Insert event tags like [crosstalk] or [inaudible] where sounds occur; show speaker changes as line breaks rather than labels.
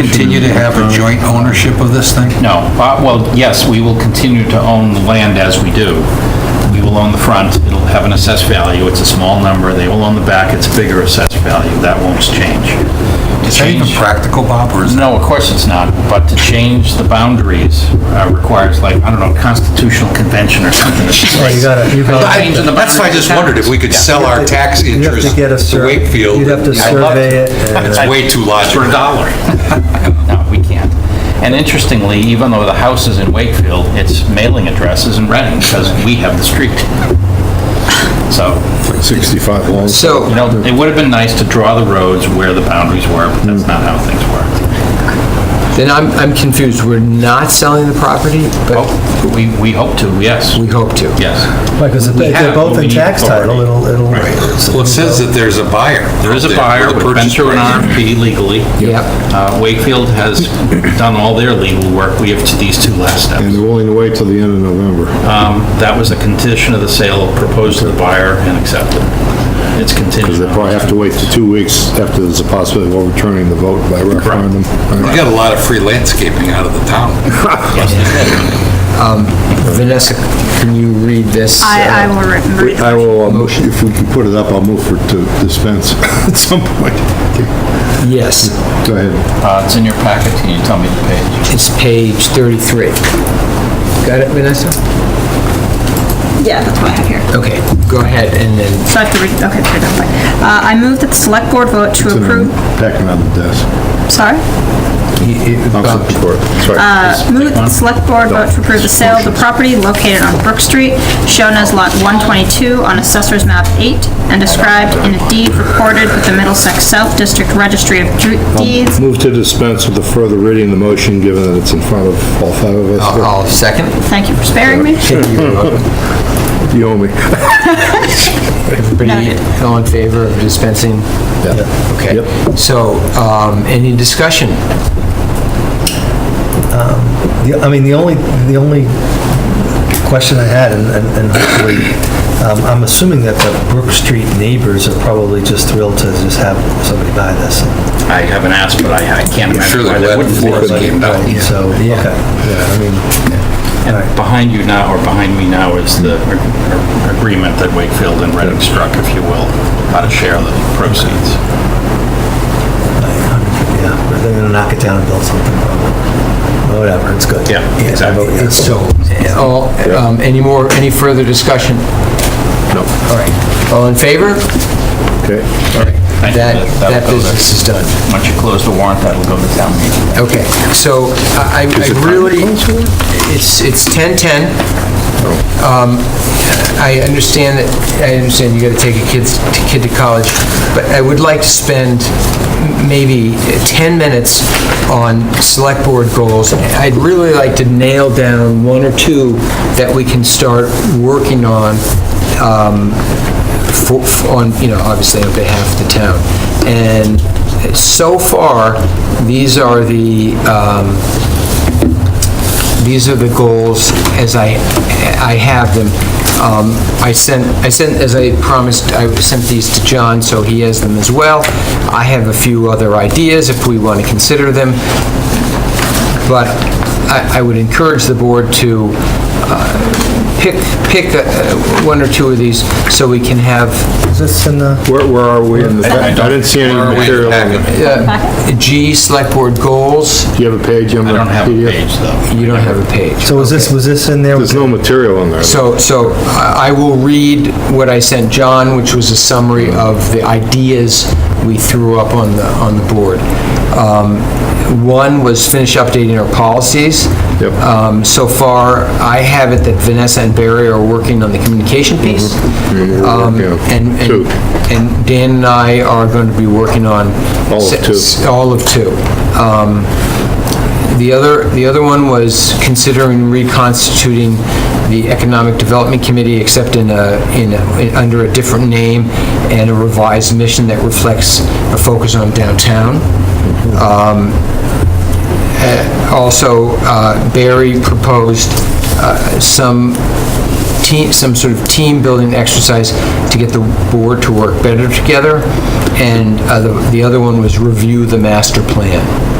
continue to have
uh,
a joint ownership of this thing?
No, uh, well, yes, we will continue to own the land as we do. We will own the front, it'll have an assessed value, it's a small number, they will own the back, it's a bigger assessed value, that won't change. To
Is that even
change-
practical, Bob, or is that?
No, of course it's not, but to change the boundaries uh, requires like, I don't know, constitutional convention or something.
You gotta, you gotta,
Changing the
That's why I just wondered if we could sell our tax
you'd have
interest
to get a
to
sur,
Wakefield.
you'd have to
I love
survey it.
It's
and-
way too
for
logical.
a dollar. [laughs] No, we can't. And interestingly, even though the house is in Wakefield, its mailing address is in Reading because we have the street. So,
65 long.
So,
you know, it would have been nice to draw the roads where the boundaries were, but that's not how things work.
Then I'm, I'm confused, we're not selling the property, but
Oh, We, we hope to, yes,
we hope to.
yes.
Right, because if
We
they're
have,
both
but we
in
need
tax
authority.
title, it'll, it'll.
well, it says that there's a buyer.
There is a
out
buyer,
with
we've been
purchase
through an
price.
RFP legally.
Yep.
Uh, Wakefield has done all their legal work, we have to these two last steps.
And they're willing to wait till the end of November.
Um, That was a condition of the sale proposed to the buyer and accepted. It's
Because
contingent.
they probably have to wait to two weeks after there's a possibility of overturning the vote by referendum.
We got a lot of free landscaping out of the town.
Vanessa, can you read this?
I, I
uh,
will remember.
I will, uh, mo- if we can put it up, I'll move for to dispense [laughs] at some point.
Yes,
Go ahead.
Uh, It's in your packet, can you tell me the page?
it's page 33. Got it, Vanessa?
Yeah, that's what I have here.
Okay, go ahead, and then,
So I have to read, okay, put it that way. Uh, I move that the select board vote to
It's in
approve,
a Packet on the desk.
sorry?
you- you-
I'll
Bob,
support.
Uh,
Sorry.
Move that the select board vote to approve the sale of the property located on Brook Street, shown as lot 122 on Assessor's Map 8, and described in a deed recorded with the Middlesex South District Registry of Dru- Deeds.
Move to dispense with the further reading of the motion, given that it's in front of all five of
I'll
us.
uh, I'll second. uh,
Thank you for sparing me.
[laughs] You owe me.
Everybody all in favor of dispensing?
Yeah.
Okay.
Yep.
So, um, any discussion?
The- I mean, the only, the only question I had, and and- and hopefully, um, I'm assuming that the Brook Street neighbors are probably just thrilled to just have somebody buy this.
I haven't asked, but I I can't
sure
imagine why
they're
they
glad
wouldn't.
they
want
couldn't
it.
get- came down,
Right,
yeah.
So, okay, yeah, I mean,
And behind you now, or behind me now, is the ag- agreement that Wakefield and Reading struck, if you will, how to share the proceeds.
yeah, they're gonna knock it down and build something, probably. whatever, it's good.
Yeah,
I
exactly.
vote yes.
So, all, um, any more, any further discussion?
No.
All right. All in favor?
Okay.
Thank you.
That,
that'll
that
go there.
business is done.
Once you close the warrant, that'll go to town meeting.
Okay, so I I- I really, it's, it's 10:10. Um, I understand that, I understand you gotta take a kid's, kid to college, but I would like to spend m- maybe 10 minutes on select board goals. I'd really like to nail down one or two that we can start working on um, for- for- on, you know, obviously on behalf of the town. And so far, these are the, um, these are the goals as I, I have them. Um, I sent, I sent, as I promised, I sent these to John, so he has them as well. I have a few other ideas if we want to consider them, but I I would encourage the board to uh, pick, pick uh, one or two of these so we can have uh,
Is this in the,
Where, where are we in the, I didn't see any
Where are we in the
material. in
packet?
it.
uh, G, Select Board Goals.
Do you have a page?
I don't have a page, though.
You don't have a page.
so was this, was this in there?
There's no material on there.
So, so I I will read what I sent John, which was a summary of the ideas we threw up on the, on the board. Um, One was finish updating our policies.
Yep.
Um, So far, I have it that Vanessa and Barry are working on the communication piece. Um,
working on
And, and-
two.
and Dan and I are going to be working on...
All of two.
s- All of two. Um, the other, the other one was considering reconstituting the Economic Development Committee, except in a, in, a- in- under a different name and a revised mission that reflects a focus on downtown. Um, eh, Also, uh, Barry proposed uh, some team, some sort of team-building exercise to get the board to work better together, and uh, the the other one was review the master plan.